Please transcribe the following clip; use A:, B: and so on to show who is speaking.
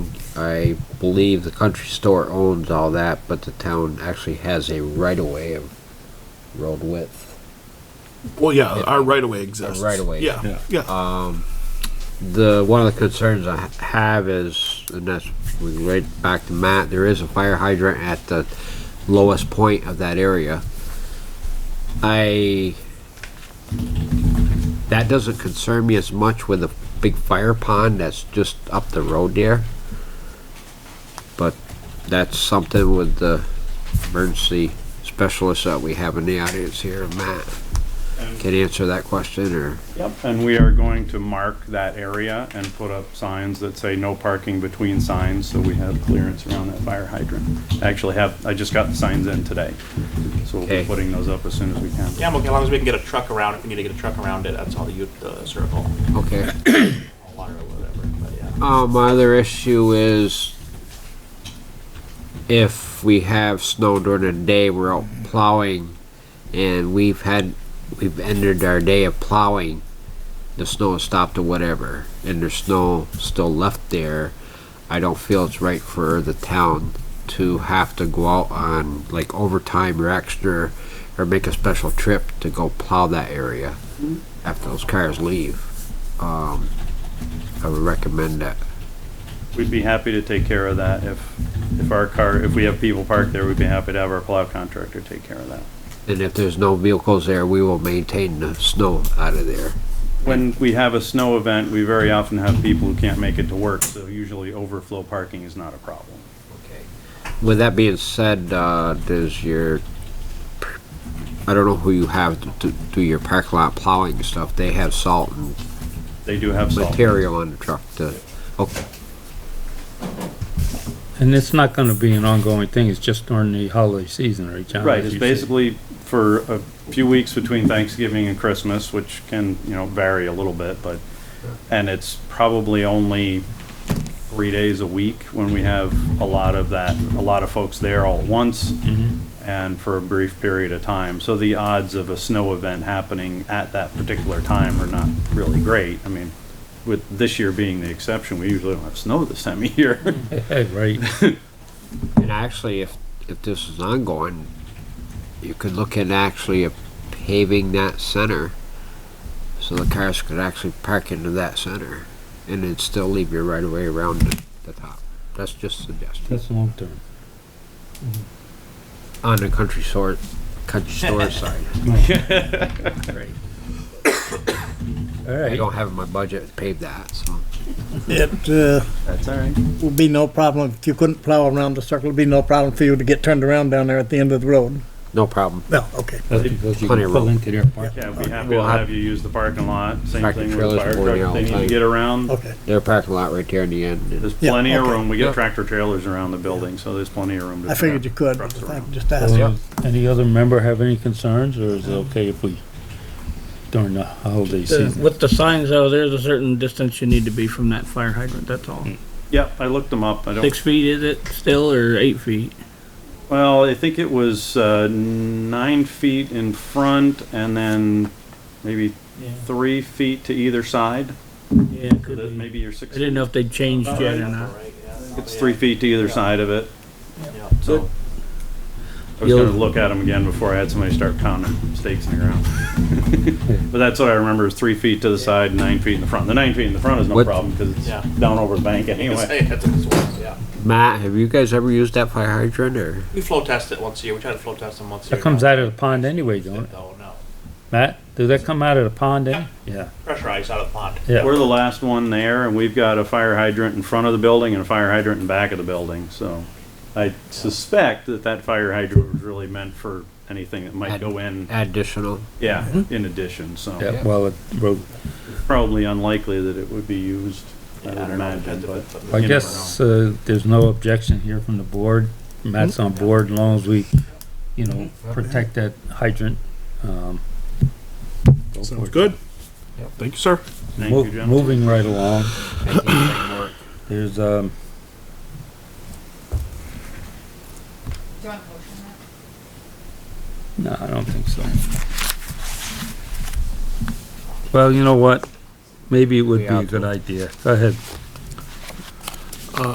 A: I believe the country store owns all that, but the town actually has a right of way of road width.
B: Well, yeah, our right of way exists.
A: Our right of way.
B: Yeah,
C: Yeah.
B: yeah.
A: The, one of the concerns I ha- have is, and that's, we can right back to Matt, there is a fire hydrant at the lowest point of that area. I, that doesn't concern me as much with the big fire pond that's just up the road there. But that's something with the emergency specialist that we have in the audience here, Matt. Can answer that question or?
D: Yep, and we are going to mark that area and put up signs that say no parking between signs, so we have clearance around that fire hydrant. I actually have, I just got the signs in today, so we'll
A: Okay.
D: be putting those up as soon as we can.
E: Yeah, I'm okay, as long as we can get a truck around, if we need to get a truck around it, that's all the, u- the circle,
A: Okay.
E: water or whatever, but yeah.
A: Uh, my other issue is if we have snow during the day, we're out plowing, and we've had we've ended our day of plowing. The snow has stopped or whatever, and there's snow still left there. I don't feel it's right for the town to have to go out on like overtime or extra or make a special trip to go plow that area after those cars leave. Um, I would recommend that.
D: We'd be happy to take care of that if, if our car, if we have people parked there, we'd be happy to have our plow contractor take care of that.
A: And if there's no vehicles there, we will maintain the snow out of there.
D: When we have a snow event, we very often have people who can't make it to work, so usually overflow parking is not a problem.
A: With that being said, uh, does your, I don't know who you have to- to do your parking lot plowing and stuff, they have salt and
D: They do have salt.
A: material on the truck to, oh, okay,
C: And it's not gonna be an ongoing thing, it's just during the holiday season, right, John?
D: Right,
C: As
D: it's
C: you said.
D: basically for a few weeks between Thanksgiving and Christmas, which can, you know, vary a little bit, but, and it's probably only three days a week when we have a lot of that, a lot of folks there all at once and for a brief period of time. So the odds of a snow event happening at that particular time are not really great. I mean, with this year being the exception, we usually don't have snow this time of year.
C: Hey, right,
A: and actually, if, if this is ongoing, you could look at actually paving that center, so the cars could actually park into that center, and then still leave your right of way around the, the top. That's just a suggestion.
C: that's long term.
A: on the country store, country store side.
C: All
A: I
C: right,
A: don't have my budget to pay that, so.
F: It uh,
D: That's all right.
F: would be no problem, if you couldn't plow around the circle, it'd be no problem for you to get turned around down there at the end of the road.
A: No problem.
F: No, okay.
C: that's because you
A: Plenty of
C: can pull
A: room.
C: into their park.
D: Yeah, we have,
A: We'll
D: we'll
A: have-
D: have you use the parking lot, same
A: Tractor
D: thing with
A: trailers
D: fire
A: boarding
D: truck,
A: out
D: they need to
A: like-
D: get around.
F: Okay.
A: Their parking lot right there in the end. and-
D: There's plenty of
F: okay.
D: room, we get
A: Yeah.
D: tractor trailers around the building, so there's plenty of room to.
F: I figured you
D: track
F: could,
D: trucks
F: I
D: around.
F: just asked.
C: Uh, Any other member have any concerns, or is it okay if we, during the holiday
G: The-
C: season?
G: With the signs though, there's a certain distance you need to be from that fire hydrant, that's all.
D: Yep, I looked them up, I
G: Six
D: don't,
G: feet is it still, or eight feet?
D: well, I think it was, uh, nine feet in front and then maybe three feet to either side.
G: Yeah, it
D: So
G: could
D: that
G: be.
D: Maybe you're six.
G: I didn't know if they changed
D: About
G: yet
D: right.
G: or not.
D: It's three feet to either side of it,
E: Yeah.
D: so. I was
G: You'll-
D: gonna look at them again before I had somebody start counting stakes in the ground. But that's what I remember, is three feet to the side, nine feet in the front. The nine feet in the front is no
A: What-
D: problem, because it's
E: Yeah.
D: down over the bank anyway.
E: Say that's what it's worth, yeah.
A: Matt, have you guys ever used that fire hydrant or?
E: We flow test it once a year, we try to flow test them once a year.
C: That comes out of the pond anyway, don't it?
E: No, no,
C: Matt, does that come out of the pond then? Yeah,
E: pressure ice out of the pond.
C: yeah.
D: We're the last one there, and we've got a fire hydrant in front of the building and a fire hydrant in back of the building, so I suspect that that fire hydrant was really meant for anything that might go in,
A: Additional.
D: yeah, in addition, so
C: Yeah, well, it broke.
D: probably unlikely that it would be used, I
E: Yeah,
D: would
E: I don't know, depends
D: imagine,
E: if
D: but
E: it's something-
C: I
D: You never
C: guess, uh, there's no objection here from the board. Matt's
A: Hmm?
C: on board, as long as we, you know, protect that hydrant. Um, go for
B: Sounds
C: it.
B: good. Thank you, sir.
D: thank
C: Mo-
D: you, gentlemen.
C: Moving right along. There's, um,
H: Do you want a motion on that?
C: no, I don't think so. Well, you know what? Maybe it would be a good idea. Go ahead.